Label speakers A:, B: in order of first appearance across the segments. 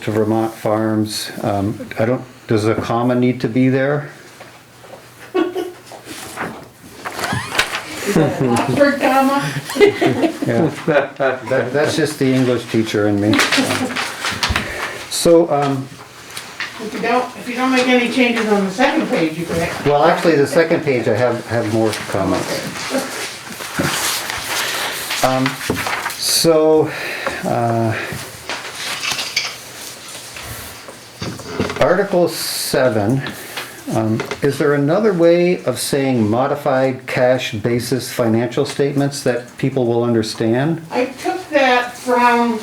A: to Vermont Farms. Um, I don't, does a comma need to be there?
B: Is that an Oxford comma?
A: Yeah, That- that's just the English teacher in me. So, um,
B: If you don't, if you don't make any changes on the second page, you can.
A: well, actually, the second page, I have, have more comments. Um, So, uh, Article 7, um, is there another way of saying modified cash basis financial statements that people will understand?
B: I took that from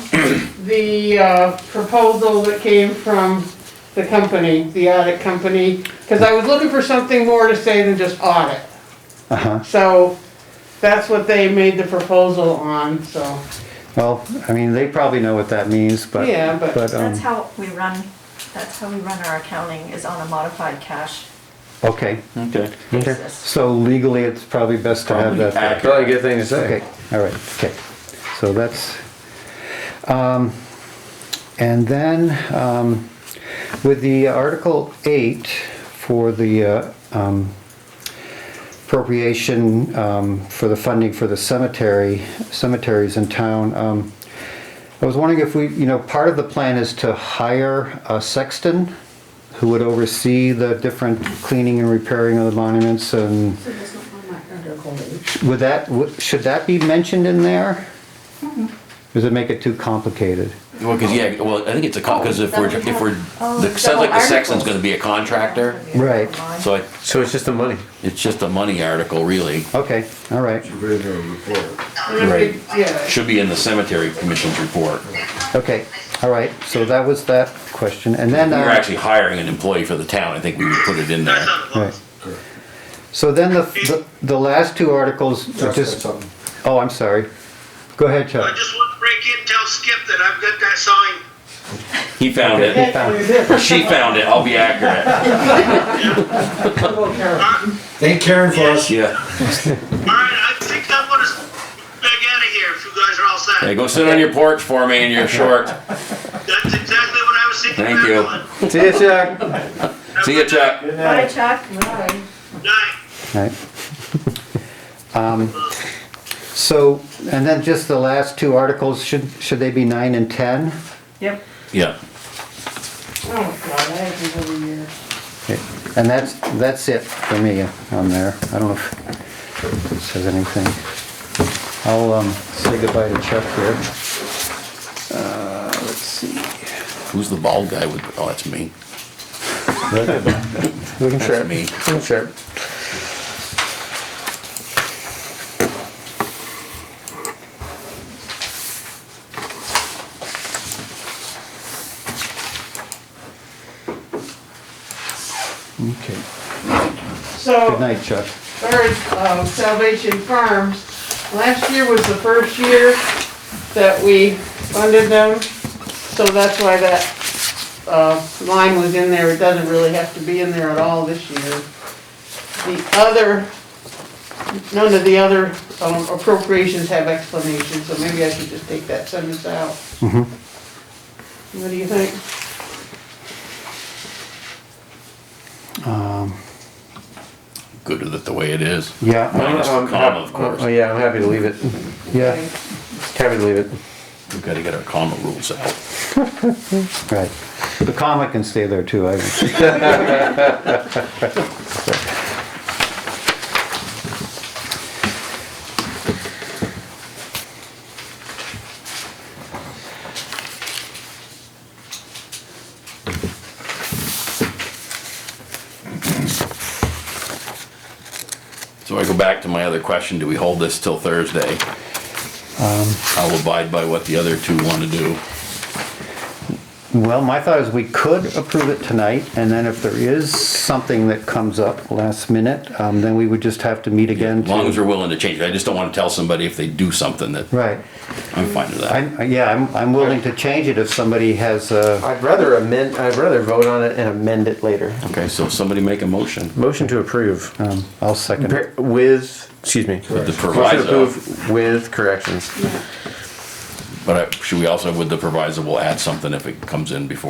B: the uh, proposal that came from the company, the audit company, because I was looking for something more to say than just audit.
A: Uh-huh.
B: So that's what they made the proposal on, so,
A: Well, I mean, they probably know what that means, but.
B: Yeah, but-
A: um,
C: That's how we run, that's how we run our accounting, is on a modified cash
A: Okay,
D: Okay.
C: basis.
A: so legally, it's probably best to have that. there.
D: Probably a good thing to say.
A: Okay, all right, okay. So that's, um, and then, um, with the Article 8 for the, uh, um, appropriation, um, for the funding for the cemetery, cemeteries in town, um, I was wondering if we, you know, part of the plan is to hire a sexton who would oversee the different cleaning and repairing of the monuments and would that, would- should that be mentioned in there? Does it make it too complicated?
E: Well, because yeah, well, I think it's a because if we're if we're
C: Oh,
E: the, sounds like the Sexton's
C: articles.
E: going to be a contractor,
A: Right.
E: so I,
D: So it's just the money.
E: it's just a money article really.
A: Okay, all right, Right.
B: yeah.
E: Should be in the cemetery commission's report.
A: okay, all right, so that was that question, and then.
E: We
A: uh,
E: were actually hiring an employee for the town. I think we would put it in there.
A: right. So then the, the, the last two articles, are just, oh, I'm sorry, go ahead,
F: I
A: Chuck.
F: just want to break in, tell Skip that I've got that sign.
E: He found it. Or she found it. I'll be accurate.
G: Thank Karen for us.
E: Yeah.
F: All right, I think I'm gonna back out of here if you guys are all
E: Hey,
F: set.
E: go sit on your porch for me in your short.
F: That's exactly what I was thinking.
E: Thank
F: about
E: you.
F: doing.
D: See ya, Chuck.
F: Have a
E: See you,
F: good night.
E: Chuck.
C: Bye, Chuck. Bye.
F: Night.
A: Right. Um, So, and then just the last two articles, should, should they be nine and 10?
C: Yep.
E: Yeah.
B: Oh, God, I have these every year.
A: Okay, And that's, that's it for me on there. I don't know if it says anything. I'll um, say goodbye to Chuck here. Uh, Let's see.
E: Who's the bald guy with? Oh, that's me.
D: We can share.
E: That's me.
D: We can share.
A: Okay.
B: So.
A: Good night, Chuck.
B: First, uh, Salvation Farms, last year was the first year that we funded them, so that's why that, uh, line was in there, it doesn't really have to be in there at all this year. The other, none of the other um, appropriations have explanations, so maybe I should just take that sentence out. What do you think?
E: Good with it the way it is.
A: Yeah,
E: Minus the comma, of course.
D: Oh, yeah, I'm happy to leave it.
A: yeah,
D: Happy to leave it.
E: We've got to get our comma rules out.
A: right. The comma can stay there too. I
E: So I go back to my other question, do we hold this till Thursday? I'll abide by what the other two want to do.
A: Well, my thought is we could approve it tonight, and then if there is something that comes up last minute, um, then we would just have to meet again.
E: As long
A: to-
E: as they're willing to change it. I just don't want to tell somebody if they do something that,
A: Right.
E: I'm fine with that.
A: I'm, yeah, I'm, I'm willing to change it if somebody has, uh,
D: I'd rather amend, I'd rather vote on it and amend it later.
E: Okay, so somebody make a motion
D: Motion to approve
A: um, I'll second it.
D: Par- with, excuse me.
E: with the
D: Motion to
E: proviso,
D: approve with corrections.
E: but I- should we also, with the proviso, we'll add something if it comes in before